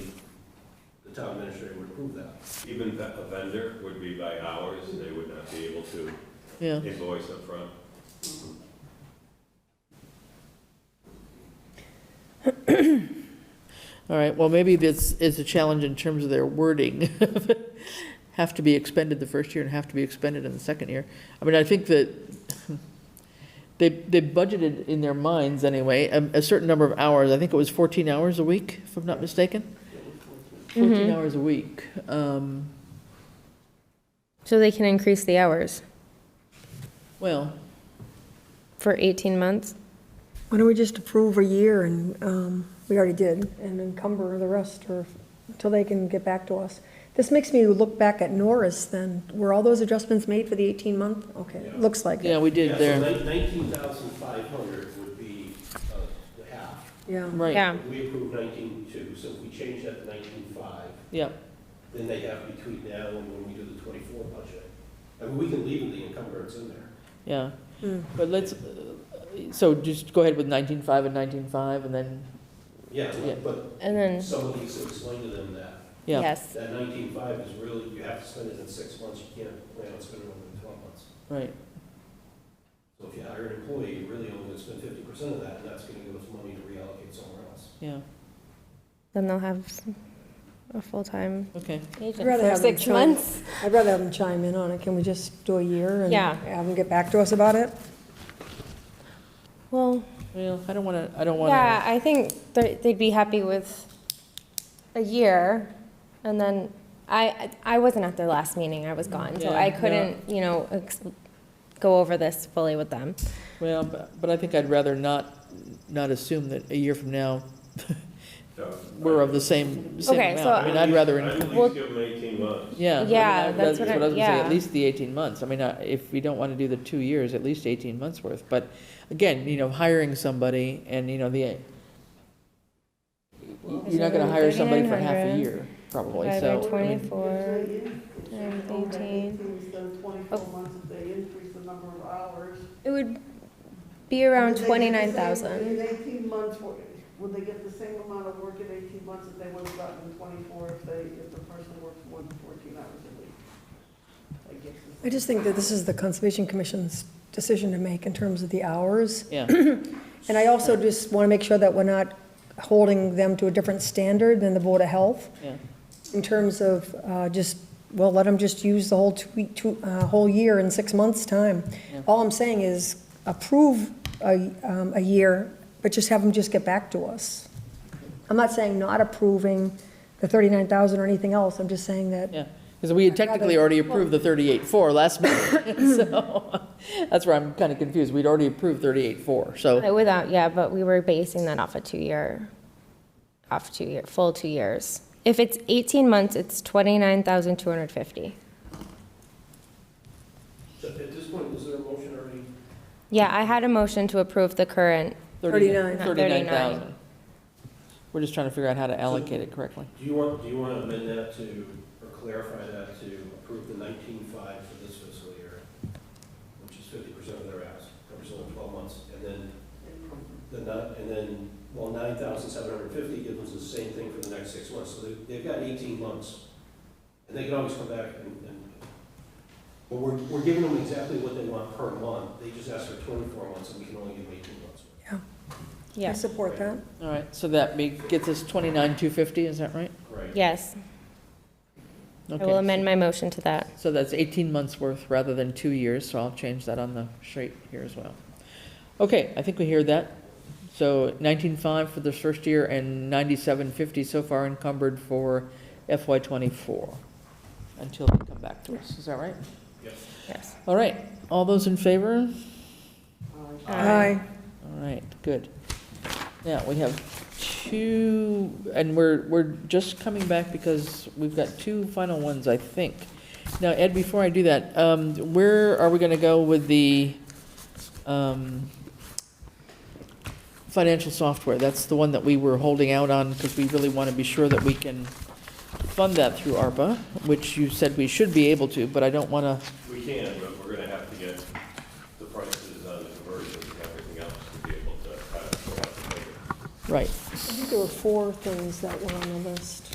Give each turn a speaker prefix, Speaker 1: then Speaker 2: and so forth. Speaker 1: the town administrator would approve that.
Speaker 2: Even if a vendor would be by hours, they would not be able to
Speaker 3: yeah.
Speaker 2: invoice upfront.
Speaker 3: All right, well, maybe this is a challenge in terms of their wording. Have to be expended the first year and have to be expended in the second year. I mean, I think that they, they budgeted in their minds anyway, a, a certain number of hours. I think it was 14 hours a week, if I'm not mistaken. 14 hours a week. Um,
Speaker 4: So they can increase the hours
Speaker 3: Well,
Speaker 4: for 18 months?
Speaker 5: Why don't we just approve a year and, um, we already did, and encumber the rest or, until they can get back to us. This makes me look back at Norris then. Were all those adjustments made for the eighteen month? Okay,
Speaker 1: Yeah.
Speaker 5: looks like
Speaker 3: yeah,
Speaker 5: it.
Speaker 3: we did there,
Speaker 1: Nineteen thousand five hundred would be uh, the half.
Speaker 5: Yeah.
Speaker 3: right,
Speaker 4: Yeah,
Speaker 1: We approved nineteen-two, so if we change that to nineteen-five,
Speaker 3: yeah.
Speaker 1: then they have between now and when we do the twenty-four budget. I mean, we can leave the encumbrance in there.
Speaker 3: Yeah,
Speaker 5: Mm.
Speaker 3: but let's, uh, so just go ahead with 19.5 and 19.5 and then,
Speaker 1: Yeah,
Speaker 3: Yeah.
Speaker 1: but
Speaker 4: and then,
Speaker 1: somebody needs to explain to them that,
Speaker 3: yeah.
Speaker 4: yes,
Speaker 1: that nineteen-five is really, you have to spend it in six months, you can't plan on spending it over twelve months.
Speaker 3: Right,
Speaker 1: So if you hire an employee, you're really only gonna spend fifty percent of that, and that's gonna give us money to reallocate somewhere else.
Speaker 3: yeah,
Speaker 4: then they'll have a full-time
Speaker 3: okay.
Speaker 5: I'd
Speaker 4: agent
Speaker 5: rather
Speaker 4: for
Speaker 5: have them
Speaker 4: six
Speaker 5: chime-
Speaker 4: months.
Speaker 5: I'd rather have them chime in on it. Can we just do a year and
Speaker 4: Yeah.
Speaker 5: have them get back to us about it?
Speaker 4: Well,
Speaker 3: Well, I don't want to, I don't want
Speaker 4: yeah,
Speaker 3: to,
Speaker 4: I think they- they'd be happy with a year, and then, I, I wasn't at their last meeting, I was gone, so
Speaker 3: Yeah,
Speaker 4: I
Speaker 3: yeah.
Speaker 4: couldn't, you know, ex- go over this fully with them.
Speaker 3: well, bu- but I think I'd rather not, not assume that a year from now,
Speaker 2: So,
Speaker 3: we're of the same, same
Speaker 4: Okay,
Speaker 3: amount.
Speaker 4: so-
Speaker 3: I mean, I'd rather,
Speaker 2: I'd
Speaker 3: in-
Speaker 2: at least give them eighteen months.
Speaker 3: yeah. I mean,
Speaker 4: Yeah,
Speaker 3: I'd-
Speaker 4: that's what I-
Speaker 3: was gonna say,
Speaker 4: yeah.
Speaker 3: At least the 18 months. I mean, I- if we don't want to do the two years, at least 18 months worth. But again, you know, hiring somebody and, you know, the, you're not going to hire somebody for half a
Speaker 4: 3,900
Speaker 3: year, probably,
Speaker 4: divided by
Speaker 3: so. I mean,
Speaker 4: 24, times 18.
Speaker 6: Then twenty-four months if they increase the number of hours.
Speaker 4: It would be around
Speaker 6: Would they get the same-
Speaker 4: 29,000.
Speaker 6: In eighteen months, would would they get the same amount of work in eighteen months that they would have gotten in twenty-four if they, if the person worked more than fourteen hours a week? I guess it's-
Speaker 5: I just think that this is the Conservation Commission's decision to make in terms of the hours.
Speaker 3: Yeah,
Speaker 5: And I also just want to make sure that we're not holding them to a different standard than the Board of Health.
Speaker 3: yeah,
Speaker 5: in terms of uh, just, well, let them just use the whole two, two, uh, whole year in six months' time.
Speaker 3: Yeah.
Speaker 5: All I'm saying is approve a, um, a year, but just have them just get back to us. I'm not saying not approving the thirty-nine thousand or anything else, I'm just saying that,
Speaker 3: yeah. Because we had technically already approved the 38.4 last meeting, so that's where I'm kind of confused. We'd already approved 38.4, so.
Speaker 4: Uh, Without, yeah, but we were basing that off a two-year, off two year, full two years. If it's 18 months, it's 29,250.
Speaker 1: So At this point, is there a motion already?
Speaker 4: Yeah, I had a motion to approve the current,
Speaker 5: 39.
Speaker 4: Not
Speaker 3: 39,000. We're just trying to figure out how to allocate it correctly.
Speaker 1: Do you want, do you want to amend that to, or clarify that to approve the nineteen-five for this fiscal year, which is fifty percent of their ask, representing twelve months, and then, the not, and then, well, nine thousand seven hundred fifty gives us the same thing for the next six months, so they, they've got eighteen months. And they can always come back and, and, but we're, we're giving them exactly what they want per month, they just asked for twenty-four months, and we can only give them eighteen months.
Speaker 5: I
Speaker 4: yeah,
Speaker 5: support that.
Speaker 3: All right, so that make- gets us 29,250, is that right?
Speaker 1: Right.
Speaker 4: yes. I will
Speaker 3: Okay.
Speaker 4: amend my motion to that.
Speaker 3: So that's 18 months' worth rather than two years, so I'll change that on the sheet here as well. Okay, I think we hear that. So 19.5 for the first year and 97.50 so far encumbered for FY '24 until they come back to us, is that right?
Speaker 1: Yes.
Speaker 4: Yes.
Speaker 3: All right, all those in favor?
Speaker 4: Uh,
Speaker 5: Aye.
Speaker 3: All right, good. Now, we have two, and we're, we're just coming back because we've got two final ones, I think. Now, Ed, before I do that, um, where are we gonna go with the, um, financial software? That's the one that we were holding out on because we really want to be sure that we can fund that through ARPA, which you said we should be able to, but I don't want to,
Speaker 2: We can, but we're gonna have to get the prices on the conversions and everything else to be able to, uh, sort out the figure.
Speaker 3: right.
Speaker 5: I think there were four things that were on the list.